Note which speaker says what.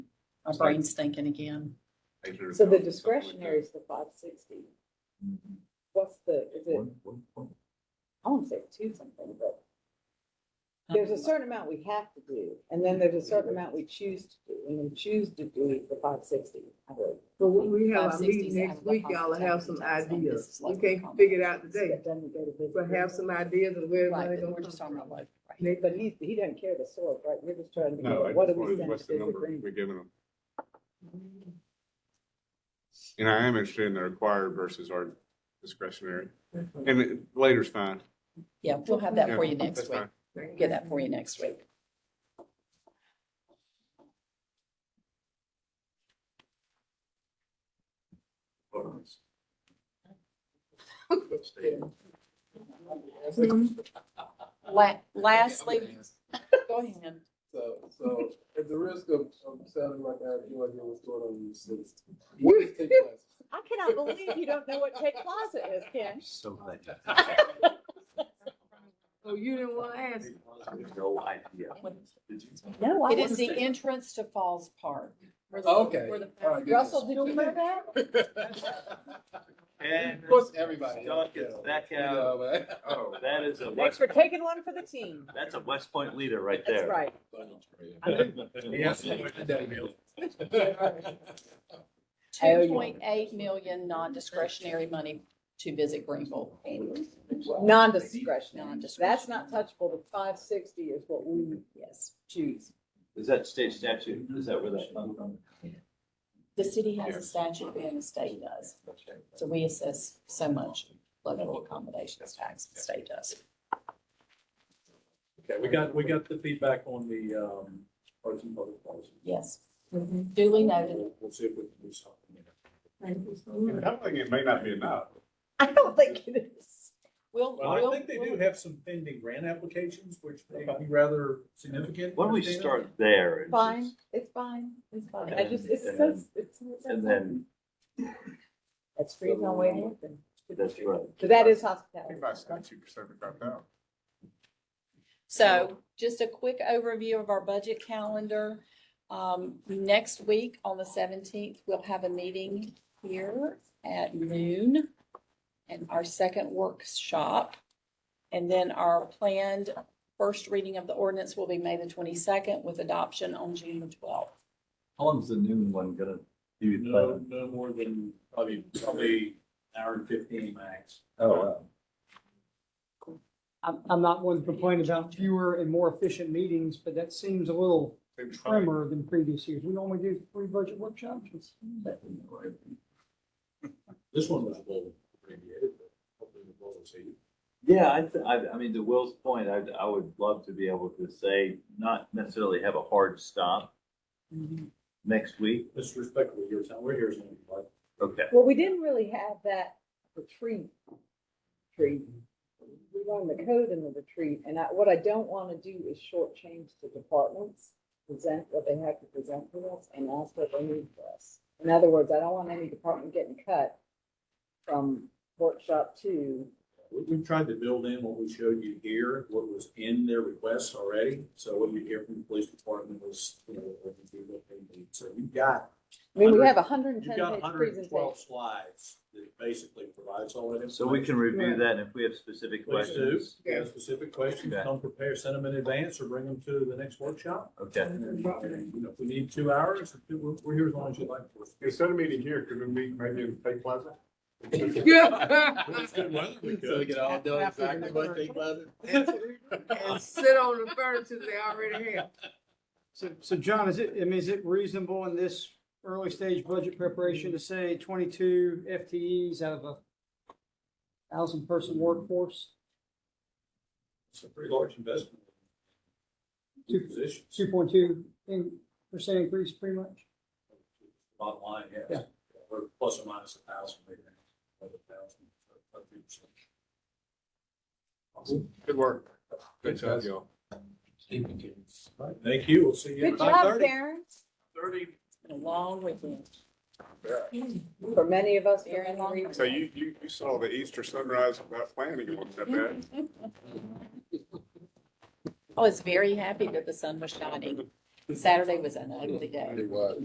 Speaker 1: our brain's thinking again.
Speaker 2: Make sure
Speaker 3: So the
Speaker 2: it's-
Speaker 3: discretionary is the five sixty. What's the, is it,
Speaker 2: One, one, one.
Speaker 3: I won't say two something, but
Speaker 1: Um,
Speaker 3: there's a certain amount we have to do, and then there's a certain amount we choose to do, and we choose to do the five sixty.
Speaker 4: But when we have our
Speaker 1: 560
Speaker 4: meeting
Speaker 1: is out
Speaker 4: next
Speaker 1: of the
Speaker 4: week, y'all will have some
Speaker 1: hospitality tax, and this
Speaker 4: ideas.
Speaker 1: is
Speaker 4: We
Speaker 1: like
Speaker 4: can't
Speaker 1: common.
Speaker 4: figure it out today, but
Speaker 3: But
Speaker 4: have some ideas of where
Speaker 1: Right,
Speaker 4: money
Speaker 1: but we're
Speaker 4: gonna
Speaker 1: just talking
Speaker 4: come
Speaker 1: about
Speaker 4: from.
Speaker 1: like. right.
Speaker 4: Next-
Speaker 3: But he, he doesn't care the source, right? We're just trying to
Speaker 2: No,
Speaker 3: go,
Speaker 2: I
Speaker 3: what do
Speaker 2: just
Speaker 3: we
Speaker 2: wanted,
Speaker 3: send
Speaker 2: what's
Speaker 3: to
Speaker 2: the
Speaker 3: this
Speaker 2: number
Speaker 3: agreement?
Speaker 2: we're giving them? And I am interested in the required versus our discretionary, and it- later's fine.
Speaker 1: Yeah, we'll have that
Speaker 2: Yeah,
Speaker 1: for you
Speaker 2: that's
Speaker 1: next week.
Speaker 2: fine.
Speaker 1: We'll Get that for you next week. La- lastly, go ahead.
Speaker 5: So, so at the risk of, of sounding like I have no idea what's going on in these cities. you just take classes.
Speaker 3: I cannot believe you don't know what Tech Plaza is, Ken.
Speaker 6: So glad.
Speaker 4: So you didn't wanna ask.
Speaker 6: No idea.
Speaker 3: No,
Speaker 1: It is the entrance to Falls Park. Where the-
Speaker 5: Okay,
Speaker 1: where the-
Speaker 5: all right, good.
Speaker 3: Russell, did you know that?
Speaker 5: Of course, everybody.
Speaker 6: Doug is back out. Oh, That is a,
Speaker 3: Thanks
Speaker 6: West-
Speaker 3: for taking one for the team.
Speaker 6: that's a West Point leader right
Speaker 3: That's
Speaker 6: there.
Speaker 3: right.
Speaker 5: Yes.
Speaker 3: Oh, yeah.
Speaker 1: 2.8 million non-discretionary money to visit Greenville.
Speaker 3: Non-discretionary. Mm-hmm.
Speaker 1: Non-discretionary.
Speaker 3: That's not touchable. The five sixty is what we
Speaker 1: Yes.
Speaker 3: choose.
Speaker 6: Is that state statute? Is that where that comes from?
Speaker 1: The city has a statute and the state does. So we assess so much local accommodations tax, the state does.
Speaker 7: Okay, we got, we got the feedback on the, um, arts and public policy.
Speaker 1: Yes.
Speaker 3: Mm-hmm.
Speaker 1: Duly noted.
Speaker 7: We'll we'll see if we can do something.
Speaker 2: And I think it may not be enough.
Speaker 3: I don't think it is.
Speaker 1: We'll,
Speaker 7: Well, I
Speaker 1: we'll-
Speaker 7: think they do have some pending grant applications, which may be rather significant.
Speaker 6: Why don't we start there? and
Speaker 3: Fine.
Speaker 6: just-
Speaker 3: It's fine. It's fine. I just, it's, it's, it's.
Speaker 6: And then,
Speaker 3: That's free on way open.
Speaker 6: that's right.
Speaker 3: But that is
Speaker 2: I
Speaker 3: hospitality.
Speaker 2: think by statute, you're serving about that.
Speaker 1: So just a quick overview of our budget calendar. Um, next week on the seventeenth, we'll have a meeting here at noon and our second workshop. And then our planned first reading of the ordinance will be May the twenty-second with adoption on June the twelfth.
Speaker 8: How long's the noon one gonna be?
Speaker 7: No, no more than probably, probably an hour and fifteen max.
Speaker 8: Oh, wow.
Speaker 9: I'm, I'm not one to complain about fewer and more efficient meetings, but that seems a little trimmer than previous years. We normally do three budget workshops. It's-
Speaker 7: This one was a little abbreviated, but hopefully the will see.
Speaker 6: Yeah, I, th- I, I mean, to Will's point, I, I would love to be able to say, not necessarily have a hard stop
Speaker 3: Mm-hmm.
Speaker 6: next week.
Speaker 7: Disrespectful, your time, we're here, so like,
Speaker 6: Okay.
Speaker 3: Well, we didn't really have that retreat. Retreat. We learned the code in the retreat, and I, what I don't want to do is shortchange the departments, present what they have to present to us, and ask what they need for us. In other words, I don't want any department getting cut from workshop two.
Speaker 7: we, we tried to build in what we showed you here, what was in their requests already. So what you hear from the police department was, you know, what we do, what they need. So you've got
Speaker 3: I mean, we have a hundred and ten
Speaker 7: You've got
Speaker 3: page
Speaker 7: hundred and
Speaker 3: presentation.
Speaker 7: twelve slides that basically provides all that.
Speaker 6: So we can review that and if we have specific
Speaker 7: Please do.
Speaker 6: questions.
Speaker 7: If you have specific questions,
Speaker 6: Okay.
Speaker 7: come prepare, send them in advance or bring them to the next workshop.
Speaker 6: Okay.
Speaker 7: And, you know, if we need two hours, we're, we're here as long as you'd like. for us.
Speaker 2: Instead of meeting here, could we meet maybe in Bay Plaza?
Speaker 7: It's good weather, we
Speaker 5: So we
Speaker 7: could.
Speaker 5: get all done exactly what they planned.
Speaker 4: And sit on the furniture they already have.
Speaker 9: So, so John, is it, I mean, is it reasonable in this early stage budget preparation to say twenty-two FTEs out of a thousand person workforce?
Speaker 7: It's a pretty large investment. Two positions,
Speaker 9: Two point two percent increase pretty much?
Speaker 7: bottom line, yes.
Speaker 9: Yeah.
Speaker 7: We're plus or minus a thousand, maybe, another thousand, about three percent.
Speaker 2: Good work. Good job, y'all.
Speaker 7: Thank you, we'll see you
Speaker 3: Good
Speaker 7: at nine
Speaker 3: job,
Speaker 7: thirty.
Speaker 3: Karen.
Speaker 7: Thirty.
Speaker 1: It's been a long weekend.
Speaker 3: For many of us,
Speaker 1: Very
Speaker 3: very
Speaker 1: long.
Speaker 3: long.
Speaker 2: So you, you, you saw the Easter sunrise without planning, it wasn't that bad.
Speaker 1: Oh, I was very happy that the sun was shining. Saturday was an ugly day.
Speaker 5: It was.